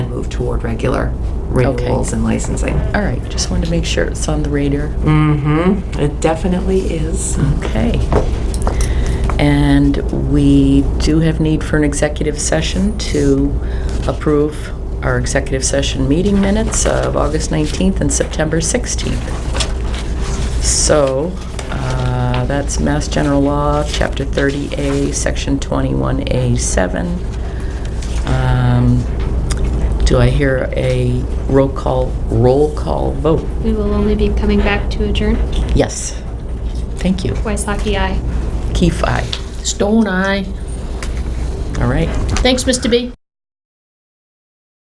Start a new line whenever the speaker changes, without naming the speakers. move toward regular renewals and licensing.
All right, just wanted to make sure it's on the radar.
Mm-hmm, it definitely is.
Okay. And we do have need for an executive session to approve our executive session meeting minutes of August 19th and September 16th. So, uh, that's Mass General Law, Chapter 30A, Section 21A7. Um, Do I hear a roll call, roll call vote?
We will only be coming back to adjourn.
Yes. Thank you.
Waisaki, aye.
Keefe, aye.
Stone Eye.
All right.
Thanks, Mr. B.